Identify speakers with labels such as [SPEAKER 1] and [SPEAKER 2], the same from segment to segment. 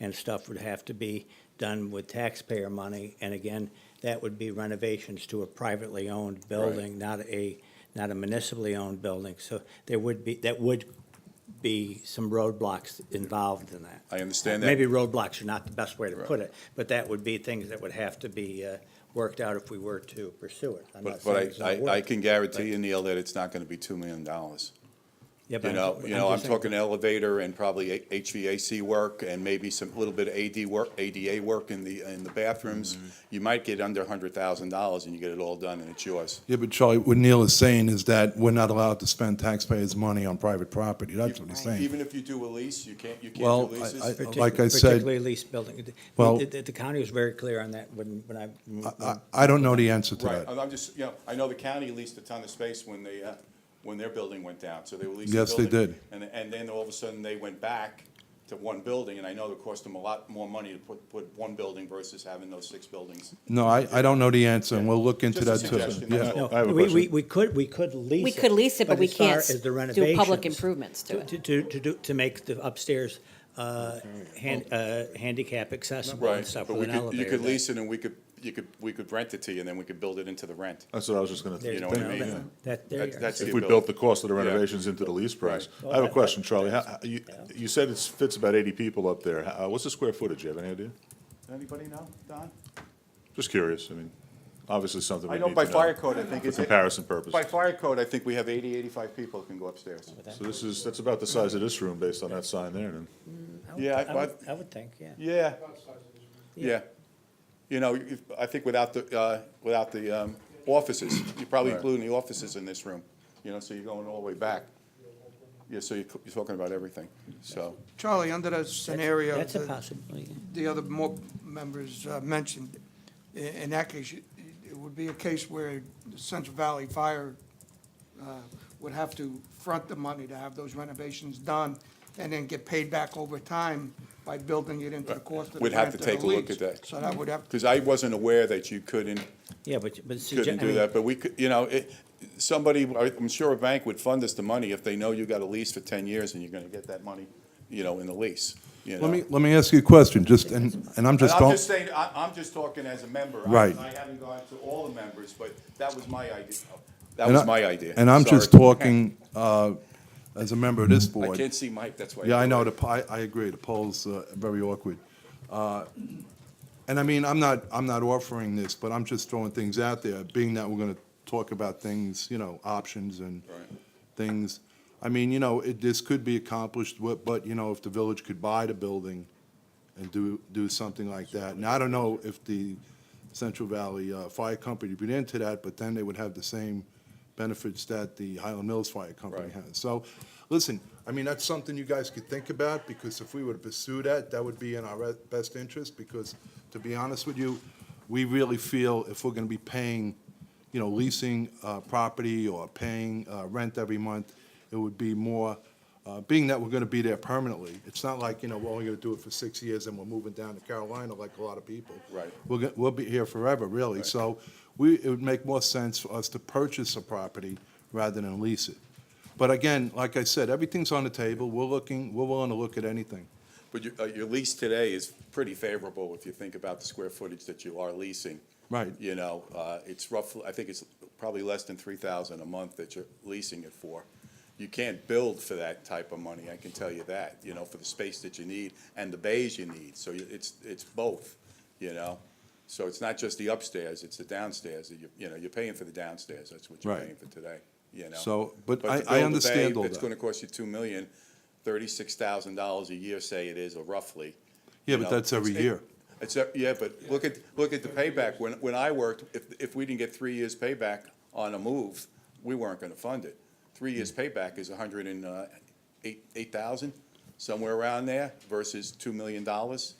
[SPEAKER 1] and stuff would have to be done with taxpayer money. And again, that would be renovations to a privately owned building, not a, not a municipally owned building. So there would be, that would be some roadblocks involved in that.
[SPEAKER 2] I understand that.
[SPEAKER 1] Maybe roadblocks are not the best way to
[SPEAKER 2] Right.
[SPEAKER 1] put it, but that would be things that would have to be uh, worked out if we were to pursue it. I'm not
[SPEAKER 2] But,
[SPEAKER 1] saying
[SPEAKER 2] but
[SPEAKER 1] it's not
[SPEAKER 2] I, I, I
[SPEAKER 1] worth it.
[SPEAKER 2] can guarantee you, Neil, that it's not gonna be two million dollars.
[SPEAKER 1] Yeah, but
[SPEAKER 2] You
[SPEAKER 1] I'm-
[SPEAKER 2] know, you know, I'm
[SPEAKER 1] just saying-
[SPEAKER 2] talking elevator and probably H- HVAC work and maybe some, little bit of AD work, ADA work in the, in the bathrooms.
[SPEAKER 1] Mm-hmm.
[SPEAKER 2] You might get under a hundred thousand dollars and you get it all done and it's yours.
[SPEAKER 3] Yeah, but Charlie, what Neil is saying is that we're not allowed to spend taxpayers' money on private property. That's what he's saying.
[SPEAKER 2] Even if you do a lease, you can't, you
[SPEAKER 3] Well,
[SPEAKER 2] can't do
[SPEAKER 3] I-
[SPEAKER 2] leases?
[SPEAKER 3] I-
[SPEAKER 1] Partic-
[SPEAKER 3] like I said-
[SPEAKER 1] Particularly lease building. The-
[SPEAKER 3] Well-
[SPEAKER 1] The, the county was very clear on that when, when I.
[SPEAKER 3] I, I don't know the answer to
[SPEAKER 2] Right,
[SPEAKER 3] that.
[SPEAKER 2] I'm I'm just, you know, I know the county leased a ton of space when they, uh, when their building went down, so they were leasing.
[SPEAKER 3] Yes, they
[SPEAKER 2] building,
[SPEAKER 3] did.
[SPEAKER 2] And, and then all of a sudden, they went back to one building, and I know it cost them a lot more money to put, put one building versus having those six buildings.
[SPEAKER 3] No, I, I don't know the answer, and we'll look into that
[SPEAKER 2] Just a
[SPEAKER 3] too.
[SPEAKER 2] suggestion, that's
[SPEAKER 3] Yeah,
[SPEAKER 2] all.
[SPEAKER 1] No,
[SPEAKER 4] I have a
[SPEAKER 1] we, we,
[SPEAKER 4] question.
[SPEAKER 1] we could, we could lease
[SPEAKER 5] We
[SPEAKER 1] it.
[SPEAKER 5] could lease it, but we
[SPEAKER 1] as far
[SPEAKER 5] can't
[SPEAKER 1] as the
[SPEAKER 5] s- do public
[SPEAKER 1] renovations,
[SPEAKER 5] improvements to it.
[SPEAKER 1] To, to, to do, to make the upstairs, uh, hand, uh, handicap accessible and
[SPEAKER 2] Right,
[SPEAKER 1] stuff
[SPEAKER 2] but
[SPEAKER 1] with
[SPEAKER 2] we
[SPEAKER 1] an
[SPEAKER 2] could,
[SPEAKER 1] elevator.
[SPEAKER 2] you could
[SPEAKER 1] that-
[SPEAKER 2] lease it, and we could, you could, we could rent it to you, and then we could build it into the rent.
[SPEAKER 4] That's what I was just gonna,
[SPEAKER 1] there
[SPEAKER 2] you
[SPEAKER 1] you
[SPEAKER 2] know
[SPEAKER 4] thank
[SPEAKER 2] what I
[SPEAKER 1] go.
[SPEAKER 2] mean?
[SPEAKER 1] That- That, there
[SPEAKER 2] That-
[SPEAKER 1] you
[SPEAKER 2] that's
[SPEAKER 1] are.
[SPEAKER 4] If
[SPEAKER 2] you
[SPEAKER 4] we
[SPEAKER 2] built-
[SPEAKER 4] built the cost of the
[SPEAKER 2] Yeah.
[SPEAKER 4] renovations into the lease price.
[SPEAKER 1] Right.
[SPEAKER 4] I have a question, Charlie. How- how- You, you said it fits about eighty people up there. How- What's the square footage? You have any idea?
[SPEAKER 2] Anybody know, Don?
[SPEAKER 4] Just curious. I mean, obviously something we
[SPEAKER 2] I
[SPEAKER 4] need
[SPEAKER 2] know
[SPEAKER 4] to know.
[SPEAKER 2] by fire code, I think
[SPEAKER 4] For
[SPEAKER 2] it's.
[SPEAKER 4] comparison purposes.
[SPEAKER 2] By fire code, I think we have 80, 85 people that can go upstairs.
[SPEAKER 4] So this is, that's about the size of this room based on that sign there then.
[SPEAKER 2] Yeah, I-
[SPEAKER 1] I would, I would think, yeah.
[SPEAKER 2] Yeah. Yeah. You know, if, I think without the, uh, without the, um, offices, you're probably including the offices in this room, you know, so you're going all the way back. Yeah, so you're, you're talking about everything, so.
[SPEAKER 6] Charlie, under that scenario
[SPEAKER 1] That's a
[SPEAKER 6] that
[SPEAKER 1] possibility.
[SPEAKER 6] the other more members uh, mentioned, i- in that case, it- it would be a case where the Central Valley Fire uh, would have to front the money to have those renovations done and then get paid back over time by building it into the cost of the
[SPEAKER 2] We'd have to
[SPEAKER 6] rent or
[SPEAKER 2] take a
[SPEAKER 6] the
[SPEAKER 2] look at
[SPEAKER 6] lease.
[SPEAKER 2] that.
[SPEAKER 6] So that would have,
[SPEAKER 2] Because I wasn't aware that you couldn't,
[SPEAKER 1] Yeah, but, but. sugge-
[SPEAKER 2] couldn't
[SPEAKER 1] I
[SPEAKER 2] do
[SPEAKER 1] mean,
[SPEAKER 2] that, but we could, you know, it, somebody, I'm sure a bank would fund us the money if they know you got a lease for ten years and you're gonna get that money, you know, in the lease, you know.
[SPEAKER 3] Let me, let me ask you a question, just, and, and I'm just,
[SPEAKER 2] I'm
[SPEAKER 3] don't,
[SPEAKER 2] just saying, I, I'm just talking as a member. I-
[SPEAKER 3] Right.
[SPEAKER 2] I haven't gone to all the members, but that was my idea. That
[SPEAKER 3] and
[SPEAKER 2] was
[SPEAKER 3] I-
[SPEAKER 2] my idea.
[SPEAKER 3] And I'm just
[SPEAKER 2] Sorry.
[SPEAKER 3] talking, uh, as a member of this board.
[SPEAKER 2] I can't see Mike, that's why.
[SPEAKER 3] Yeah, I know, the, po- I, I agree, the poll's uh, very awkward. Uh, And I mean, I'm not, I'm not offering this, but I'm just throwing things out there, being that we're gonna talk about things, you know, options and
[SPEAKER 2] Right.
[SPEAKER 3] things. I mean, you know, it, this could be accomplished, but, but, you know, if the village could buy the building and do, do something like that. Now, I don't know if the Central Valley uh, Fire Company would be into that, but then they would have the same benefits that the Highland Mills Fire Company
[SPEAKER 2] Right.
[SPEAKER 3] has. So, listen, I mean, that's something you guys could think about, because if we were to pursue that, that would be in our re- best interest, because, to be honest with you, we really feel if we're gonna be paying, you know, leasing, uh, property or paying, uh, rent every month, it would be more, uh, being that we're gonna be there permanently, it's not like, you know, we're only gonna do it for six years and we're moving down to Carolina like a lot of people.
[SPEAKER 2] Right.
[SPEAKER 3] We're, go- we'll be here forever, really, so we, it would make more sense for us to purchase a property rather than lease it. But again, like I said, everything's on the table, we're looking, we're willing to look at anything.
[SPEAKER 2] But your, uh, your lease today is pretty favorable if you think about the square footage that you are leasing.
[SPEAKER 3] Right.
[SPEAKER 2] You know, uh, it's roughly, I think it's probably less than three thousand a month that you're leasing it for. You can't build for that type of money, I can tell you that, you know, for the space that you need and the bays you need. So you- it's, it's both, you know? So it's not just the upstairs, it's the downstairs. that You, you know, you're paying for the downstairs, that's what you're
[SPEAKER 3] Right.
[SPEAKER 2] paying for today, you know?
[SPEAKER 3] So, but
[SPEAKER 2] to
[SPEAKER 3] I- I
[SPEAKER 2] build the bay,
[SPEAKER 3] understand all
[SPEAKER 2] It's
[SPEAKER 3] that.
[SPEAKER 2] gonna cost you two million, thirty-six thousand dollars a year, say it is, or roughly.
[SPEAKER 3] Yeah,
[SPEAKER 2] you
[SPEAKER 3] but
[SPEAKER 2] know.
[SPEAKER 3] that's every
[SPEAKER 2] It's-
[SPEAKER 3] year.
[SPEAKER 2] It's, a- yeah, but look at, look at the payback. When, when I worked, if, if we didn't get three years payback on a move, we weren't gonna fund it. Three years payback is a hundred and, uh, eight, eight thousand, somewhere around there, versus two million dollars.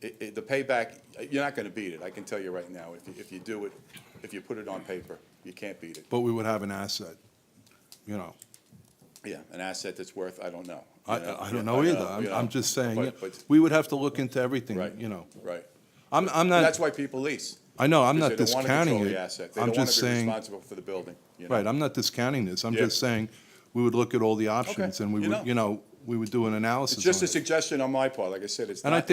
[SPEAKER 2] It, it, the payback, you're not gonna beat it, I can tell you right now. If, you- if you do it, if you put it on paper, you can't beat it.
[SPEAKER 3] But we would have an asset, you know.
[SPEAKER 2] Yeah, an asset that's worth, I don't know.
[SPEAKER 3] I,
[SPEAKER 2] you know,
[SPEAKER 3] I don't
[SPEAKER 2] yeah,
[SPEAKER 3] know either. I'm,
[SPEAKER 2] you
[SPEAKER 3] I'm
[SPEAKER 2] know,
[SPEAKER 3] just saying,
[SPEAKER 2] but-
[SPEAKER 3] yeah,
[SPEAKER 2] but-
[SPEAKER 3] we would have to look into everything,
[SPEAKER 2] Right.
[SPEAKER 3] you know.
[SPEAKER 2] Right.
[SPEAKER 3] I'm, I'm
[SPEAKER 2] That's
[SPEAKER 3] not,
[SPEAKER 2] why people lease.
[SPEAKER 3] I know, I'm not
[SPEAKER 2] because they don't wanna
[SPEAKER 3] discounting
[SPEAKER 2] control the
[SPEAKER 3] it.
[SPEAKER 2] asset. They
[SPEAKER 3] I'm
[SPEAKER 2] don't want
[SPEAKER 3] just
[SPEAKER 2] to be
[SPEAKER 3] saying,
[SPEAKER 2] responsible for the building, you know?
[SPEAKER 3] right, I'm not discounting this. I'm
[SPEAKER 2] Yeah.
[SPEAKER 3] just saying, we would look at all the options and we
[SPEAKER 2] you know.
[SPEAKER 3] would, you know, we would do an analysis
[SPEAKER 2] It's
[SPEAKER 3] on
[SPEAKER 2] just a
[SPEAKER 3] it.
[SPEAKER 2] suggestion on my part, like I said, it's
[SPEAKER 3] And I
[SPEAKER 2] not